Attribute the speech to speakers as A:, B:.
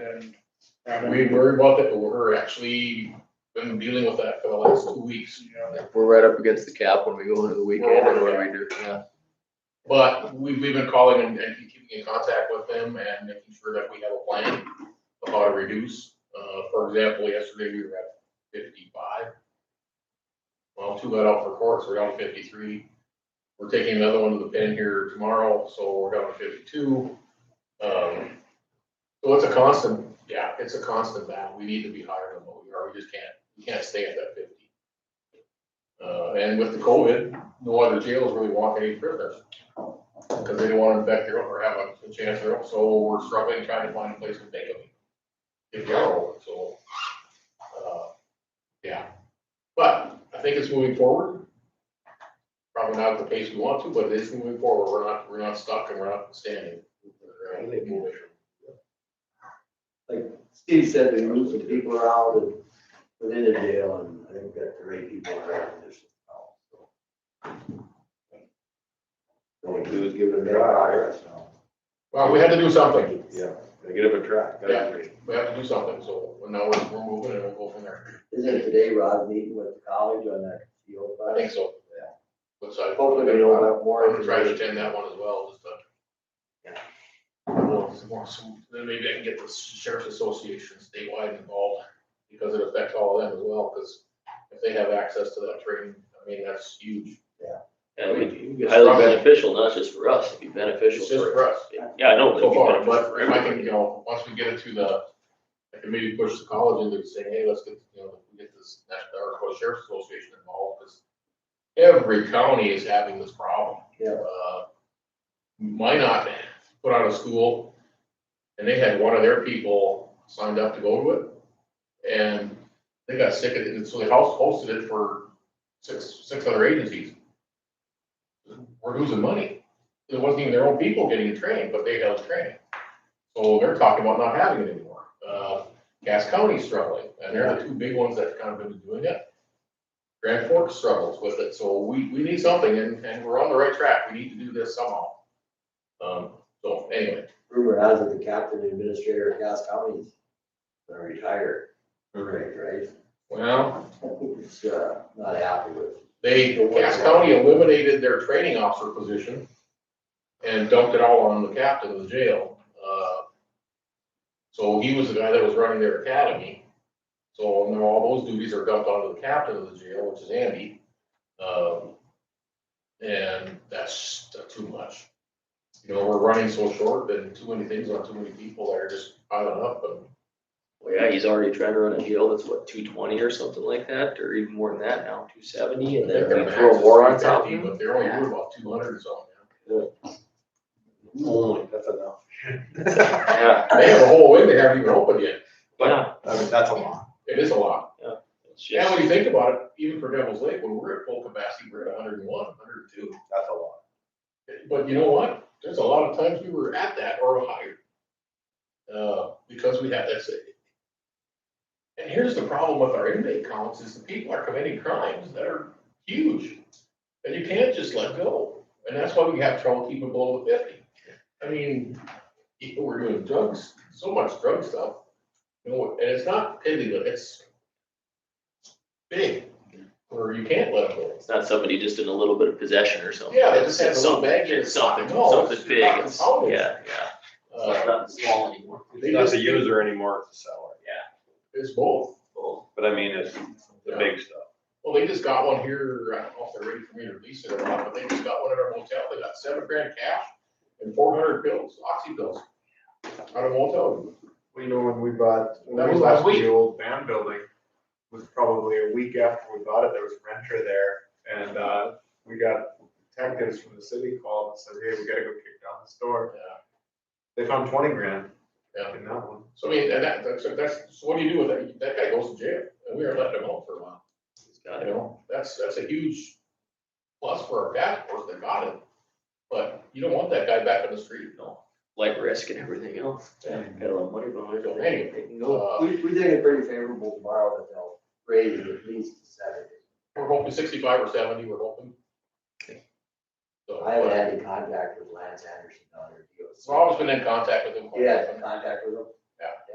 A: and.
B: And we worry about that, but we're actually been dealing with that for the last two weeks.
A: Yeah,
C: We're right up against the cap when we go into the weekend and what we do, yeah.
B: But we, we've been calling and, and keeping in contact with them and making sure that we have a plan of how to reduce. Uh, for example, yesterday we were at fifty-five. Well, two got out for courts, we're down to fifty-three. We're taking another one to the pen here tomorrow, so we're down to fifty-two. Um, so it's a constant, yeah, it's a constant battle. We need to be higher than what we are. We just can't, we can't stay at that fifty. Uh, and with the COVID, no other jails really want any prisoners because they don't want to infect their own or have a a chance their own, so we're struggling trying to find a place to take them. If they are, open, so, uh, yeah, but I think it's moving forward. Probably not at the pace we want to, but it is moving forward, we're not, we're not stuck and we're not standing. We're uh, moving.
D: Steve said they moved some people around and within the jail and I think that the right people are in this. Only two is giving them a higher, so,
B: Well, we had to do something,
D: yeah, they get up a track. gotta-
B: we have to do something, so now we're, we're moving and we'll go from there,
D: Isn't it today Rod meeting with the college on that field?
B: I think so.
D: Yeah.
B: Which I.
D: Hopefully they don't have more.
B: I'm trying to attend that one as well, just to.
D: Yeah.
B: Well, some more- some- Then maybe I can get the sheriff's association statewide involved, because it affects all of them as well, because if they have access to that training, I mean, that's huge.
E: And it would
B: mean,
E: be
B: it's
E: highly
B: probably-
E: beneficial, not just for us, it'd be
B: It's
E: beneficial
B: just
E: for.
B: for us,
E: Yeah, I know. but it'd
B: so
E: be
B: far,
E: beneficial
B: but
E: for
B: if I can,
E: everybody.
B: you know, once we get it to the, I can maybe push the college into saying, hey, let's get, you know, we get this, national our sheriff's association involved, because every county is having this problem
D: Yeah,
B: uh, Minot put out a school, and they had one of their people signed up to go to it. And they got sick of it, and so the house hosted it for six, six other agencies. We're losing money. It wasn't even their own people getting the training, but they held training. So they're talking about not having it anymore. Uh, Cass County's struggling, and they're the two big ones that kind of been doing it. Grand Forks struggles with it, so we, we need something, and, and we're on the right track, we need to do this somehow. Um, so anyway,
D: rumor has it the captain administrator of Cass County is gonna retire. Right, right?
B: well,
D: I think it's, uh, not happy with.
B: they, Cass County eliminated their training officer position and dumped it all on the captain of the jail. Uh, So he was the guy that was running their academy, so now all those duties are dumped onto the captain of the jail, which is Andy. Um, And that's that's too much. You know, we're running so short and too many things on too many people that are just piling up and
E: Well, yeah, he's already trying to run a deal that's what, two twenty or something like that, or even more than that now, two seventy, and then we throw a war on top. of him.
B: But they're only doing about two hundred or something.
F: Only, that's enough.
E: Yeah,
B: They have a whole wing they haven't even opened yet.
E: but
F: I mean, that's a lot.
B: It is a lot.
E: it's
B: Yeah,
E: just,
B: when you think about it, even for Devil's Lake, when we're at full capacity, we're at hundred and one, hundred and two.
F: That's a lot.
B: But you know what? There's a lot of times we were at that or higher. Uh, because we had that city. And here's the problem with our inmate counts is the people are committing crimes that are huge. And you can't just let go. And that's why we have trouble keeping below the fifty. I mean, people were doing drugs, so much drug stuff. You know, and it's not illegal, it's big, where you can't let them go.
E: it's not somebody just in a little bit of possession or something.
B: Yeah, they just
E: It's-
B: have a
E: it's
B: little
E: something-
B: bag in it.
E: It's something,
B: No, it's
E: something
B: just
E: big,
B: not
E: it's,
B: consolidated.
E: yeah, yeah, So
B: Uh,
E: it's not small anymore.
B: They
F: Not
B: just,
F: the user anymore, it's the seller.
B: it's both.
E: Well,
F: But I mean, it's the big stuff.
B: Well, they just got one here, I don't know if they're ready for me to release it or not, but they just got one at our motel, they got seven grand cash and four hundred pills, oxy pills. Out of motel,
G: Well, you know, when we bought,
B: That
G: when we
B: was last
G: left the
B: week.
G: old band building, was probably a week after we bought it, there was a renter there, and, uh, we got detectives from the city called and said, hey, we gotta go kick down this door. They found twenty grand
B: Yeah.
G: in that one.
B: so I mean, and that, that's, that's, so what do you do with that, that guy goes to jail, and we are letting him out for a while,
E: it's got
B: you
E: it.
B: know, that's, that's a huge. Plus for our task force, they got him, but you don't want that guy back on the street, no,
E: Like risk and everything else,
B: Yeah.
E: got a lot of money behind it.
B: Anyway,
E: They can go.
B: uh,
D: We, we think it's pretty favorable tomorrow that they'll raise it at least to seventy.
B: we're hoping sixty-five or seventy, we're hoping. So,
D: I haven't had any contact with Lance Anderson on her deals.
B: Rob's been in contact with him. quite
D: Yeah,
B: often.
D: contact with him.
B: Yeah.